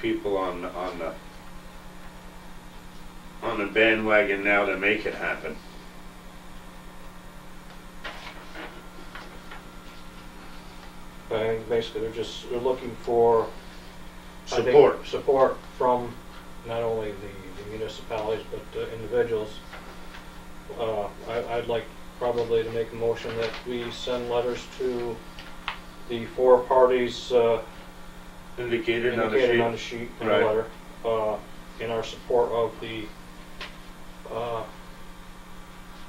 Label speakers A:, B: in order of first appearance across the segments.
A: people on on the on the bandwagon now to make it happen.
B: I think basically they're just, they're looking for. I think,
A: Support.
B: Support from not only the the municipalities, but uh, individuals. Uh, I, I'd like probably to make a motion that we send letters to the four parties uh,
A: Indicated on
B: indicated on the
A: the sheet.
B: sheet in the
A: Right.
B: letter, uh, in our support of the, uh,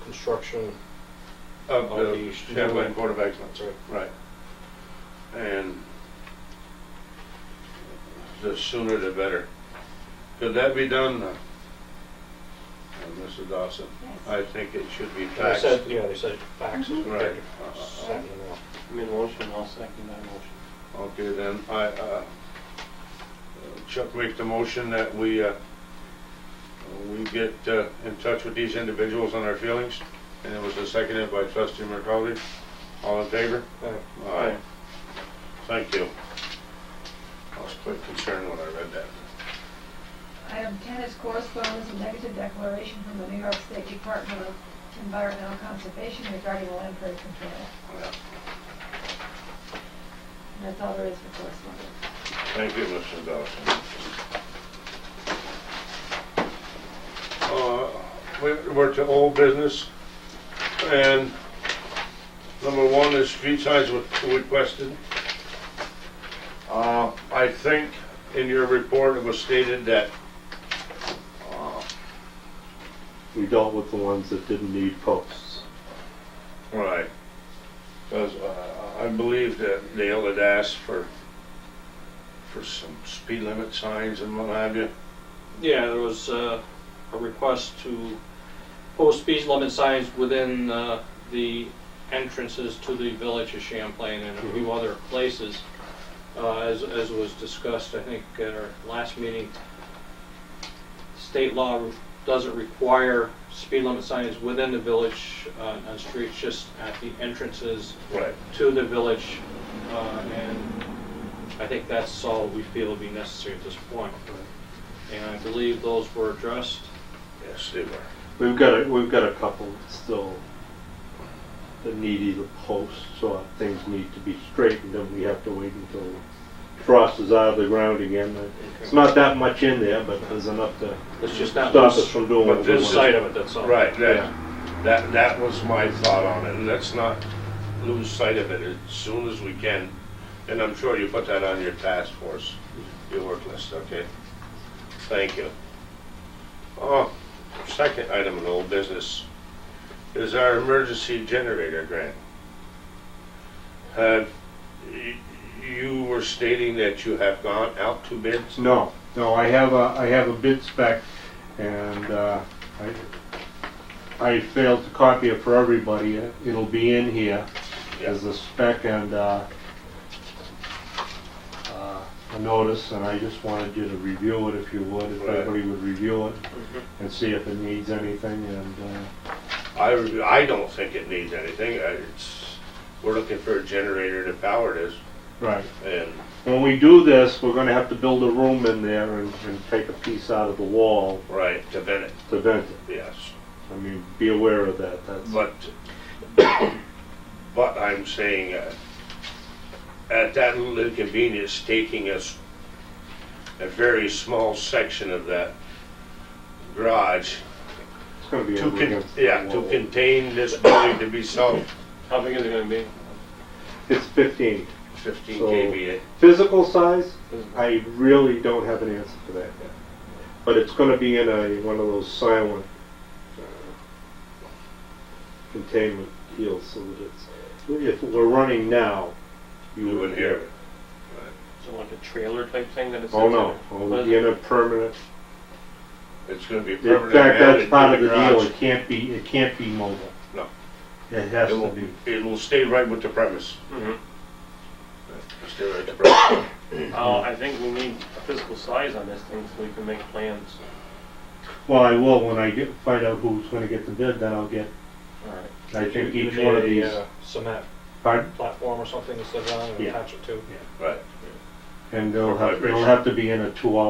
B: construction,
A: Of
B: on
A: the
B: the-
A: Champlain Board of Excellence,
B: that's right,
A: right. And the sooner the better. Could that be done, uh, uh, Mrs. Dawson? I think it should be
B: they
A: faxed.
B: said, yeah, they said faxes.
A: Right. Uh,
B: Sent in the mail.
C: Made a motion, I'll second that motion.
A: Okay, then, I, uh, Chuck make the motion that we, uh, we get uh, in touch with these individuals on their feelings, and it was seconded by trustee McCauley. All in favor?
B: All right.
A: Aye. Thank you. I was quite concerned when I read that.
D: Item 10 is correspondence and negative declaration from the New York State Department of Environmental Conservation regarding land prairie control.
A: Yeah.
D: And That's all there is for correspondence.
A: Thank you, Mr. Dawson. Uh, we- We're to old business, and number one is street signs were requested. Uh, I think in your report, it was stated that uh,
E: We dealt with the ones that didn't need posts.
A: Right. Because uh, I believe that Dale had asked for, for some speed limit signs and what have you.
F: Yeah, there was uh, a request to post speed limit signs within uh, the entrances to the village of Champlain and a few other places. Uh, As as was discussed, I think, at our last meeting, state law doesn't require speed limit signs within the village uh, on streets, just at the entrances
A: Right.
F: to the village. uh, And I think that's all we feel would be necessary at this point. And I believe those were addressed.
A: Yes, they were.
E: We've got a, we've got a couple that still that need either posts or things need to be straightened and we have to wait until frost is out of the ground again. It's not that much in there, but there's enough to
F: It's just not
E: stop us
F: lose
E: from doing
A: But
E: what we
A: this
E: want.
F: sight of it, that's all.
A: Right, that, that, that was my thought on it. Let's not lose sight of it as soon as we can. And I'm sure you put that on your task force, your work list, okay? Thank you. Oh, second item of old business is our emergency generator grant. Have, y- you were stating that you have gone out to bids?
G: No, no, I have a, I have a bid spec, and uh, I, I failed to copy it for everybody. It'll be in here as a spec and uh, uh, a notice, and I just wanted you to review it if you would, if
A: Right. Mm-hmm.
G: everybody would review it and see if it needs anything, and uh,
A: I, I don't think it needs anything. I- It's, we're looking for a generator to power this,
G: right.
A: and,
G: When we do this, we're gonna have to build a room in there and, and take a piece out of the wall
A: right, to vent it,
G: to vent it.
A: yes.
G: I mean, be aware of that, that's.
A: But, but I'm saying, uh, at that little inconvenience, taking us a very small section of that garage
G: It's gonna be
A: to,
G: over
A: con-
G: against the
A: yeah, to
G: wall.
A: contain this building to be self
C: How big is it gonna be?
G: It's 15.
A: fifteen
G: So-
A: KVA.
G: Physical size, I really don't have an answer for that yet. But it's going to be in a one of those silent uh, containment deals so that it's. If it we're running now, you
A: You
G: would
A: would hear
G: hear it.
A: it.
C: Is it like a trailer type thing that it's?
G: Oh
C: in
G: no!
C: there?
G: Oh,
C: What
G: it'll
C: is
G: be
C: it?
G: in a permanent.
A: It's gonna be
G: In fact,
A: permanently added
G: that's
A: to
G: part of the deal.
A: garage.
G: It can't be. It can't be mobile.
A: No.
G: It has
A: It
G: to
A: will,
G: be.
A: it will stay right with the premise.
C: Mhm.
A: Stay right with the premise.
C: Uh, I think we need a physical size on this thing so we can make plans.
G: Well, I will when I get find out who's going to get the bid. Then I'll get.
C: Alright.
G: I think
B: You
G: each one of
B: need
A: uh,
G: these.
B: a, uh, Cement
G: Pardon?
B: platform or something to sit on and
G: Yeah.
B: attach it to.
A: Right.
G: and they'll
A: Or
G: have, they'll
A: vibration.
G: have to be in a two-hour